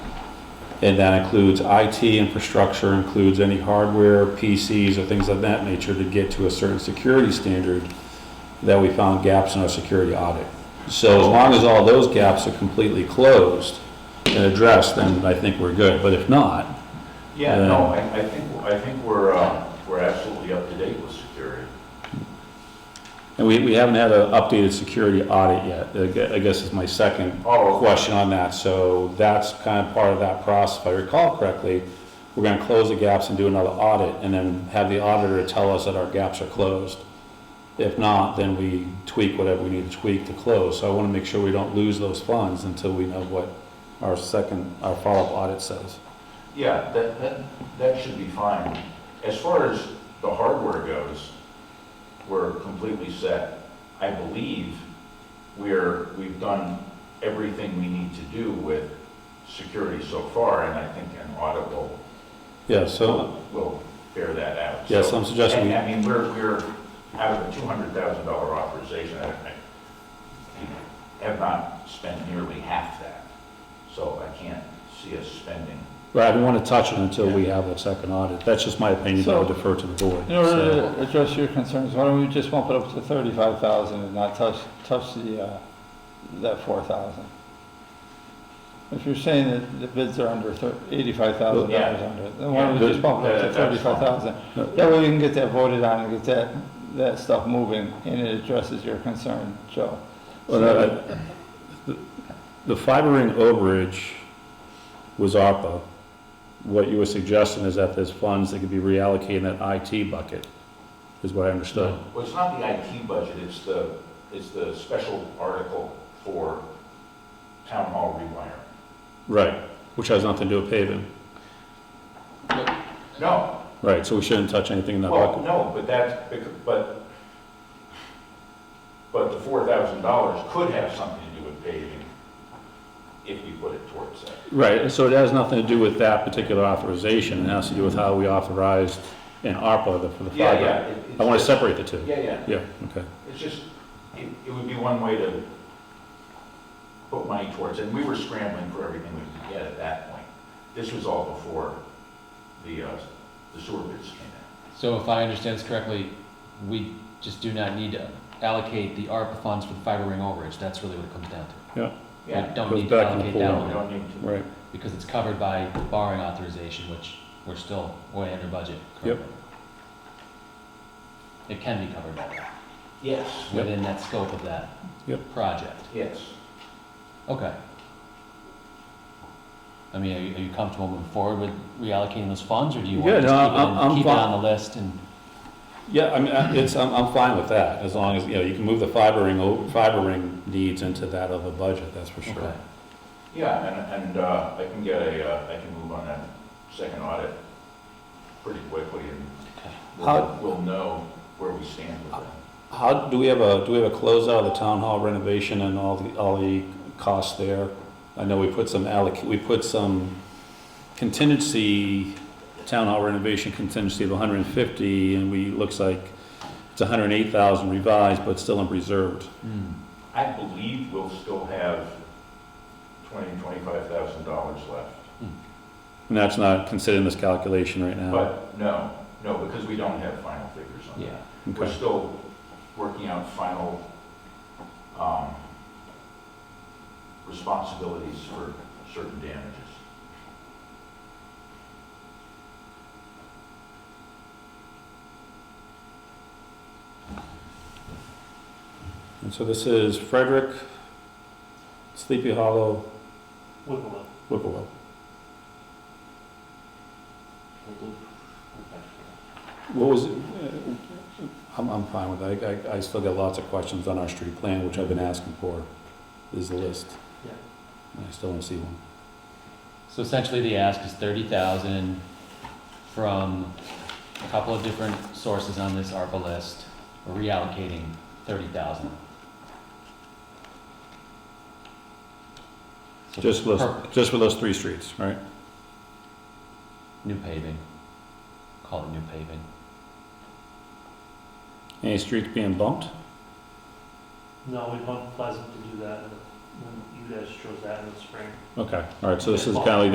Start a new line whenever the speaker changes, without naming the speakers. And that includes IT infrastructure, includes any hardware, PCs, or things of that nature to get to a certain security standard that we found gaps in our security audit. So as long as all those gaps are completely closed and addressed, then I think we're good. But if not,
Yeah, no, I, I think, I think we're, uh, we're absolutely up to date with security.
and we, we haven't had an updated security audit yet, I gue- I guess is my second
Oh, okay.
question on that. So that's kind of part of that process. If I recall correctly, we're gonna close the gaps and do another audit and then have the auditor tell us that our gaps are closed. If not, then we tweak whatever we need to tweak to close. So I wanna make sure we don't lose those funds until we know what our second, our follow-up audit says.
Yeah, that, that, that should be fine. As far as the hardware goes, we're completely set. I believe we're, we've done everything we need to do with security so far, and I think an audit will,
Yeah, so
will bear that out.
Yes,
So-
I'm suggesting we-
And, I mean, we're, we're out of the two hundred thousand dollar authorization, I, I have not spent nearly half that, so I can't see us spending
Right, I don't want to touch it until we have that second audit. That's just my opinion, I would defer to the board.
In order to address your concerns, why don't we just bump it up to thirty-five thousand and not touch, touch the, uh, that four thousand? If you're saying that the bids are under eighty-five thousand
Yeah.
dollars under, then why don't we
Yeah.
just bump it up
Yeah,
to
that's fine.
thirty-five thousand?
No.
That way we can get that voted on and get that, that stuff moving, and it addresses your concern, Joe.
Well, that- the- The fiber ring overage was ARPA. What you were suggesting is that there's funds that could be reallocated in that IT bucket, is what I understood.
Well, it's not the IT budget, it's the, it's the special article for town hall rewiring.
Right, which has nothing to do with paving.
No,
Right, so we shouldn't touch anything in that
well,
bucket.
no, but that's, bec- but, but the four thousand dollars could have something to do with paving if we put it towards that.
Right, so it has nothing to do with that particular authorization. It has to do with how we authorized in ARPA the- for the
Yeah,
fiber.
yeah. it- it's
I want to
just-
separate the two.
Yeah, yeah,
Yeah, okay.
it's just, it, it would be one way to put money towards, it. and we were scrambling for everything we could get at that point. This was all before the, uh, the sewer bids came in.
So if I understand this correctly, we just do not need to allocate the ARPA funds for the fiber ring overage, that's really what it comes down to. We
Yeah,
don't
Goes
need to
back in the
allocate
pool.
that
we
one,
don't need to.
Right.
because it's covered by borrowing authorization, which we're still way under budget
Yep.
currently. It can be covered by that,
Yes.
Yep.
within that scope of that
Yep.
project,
Yes.
okay. I mean, are you, are you comfortable moving forward with reallocating those funds, or do you
Yeah, no,
want to just keep it,
I'm- I'm
in- keep it
fine.
on the list and?
Yeah, I mean, I- it's, I'm, I'm fine with that, as long as, you know, you can move the fiber ring, o- fiber ring needs into that other budget, that's for sure.
Okay.
Yeah, and, and uh, I can get a, uh, I can move on that second audit pretty quickly and
How-
we'll, we'll know where we stand with that.
How, do we have a, do we have a closeout of the town hall renovation and all the, all the costs there? I know we put some alloc, we put some contingency, town hall renovation contingency of hundred and fifty, and we, looks like it's hundred and eight thousand revised, but still in reserved.
Hmm.
I believe we'll still have twenty, twenty-five thousand dollars left.
And that's not considered in this calculation right now.
But no, no, because we don't have final figures on
yeah.
that. We're
Okay,
still working out final um, responsibilities for certain damages.
and so this is Frederick, Sleepy Hollow,
Wigglewood.
Whipplewell. What was, it- uh, I'm, I'm fine with it. I, I- I still got lots of questions on our street plan, which I've been asking for, is the list.
Yeah.
And I still don't see one.
So essentially, the ask is thirty thousand from a couple of different sources on this ARPA list. We're reallocating thirty thousand.
Just for those, just for those three streets, right?
New paving. Call it new paving.
Any streets being bumped?
No, we want Pleasant to do that, and then you guys chose that in the spring.
Okay, all right, so this is kind of like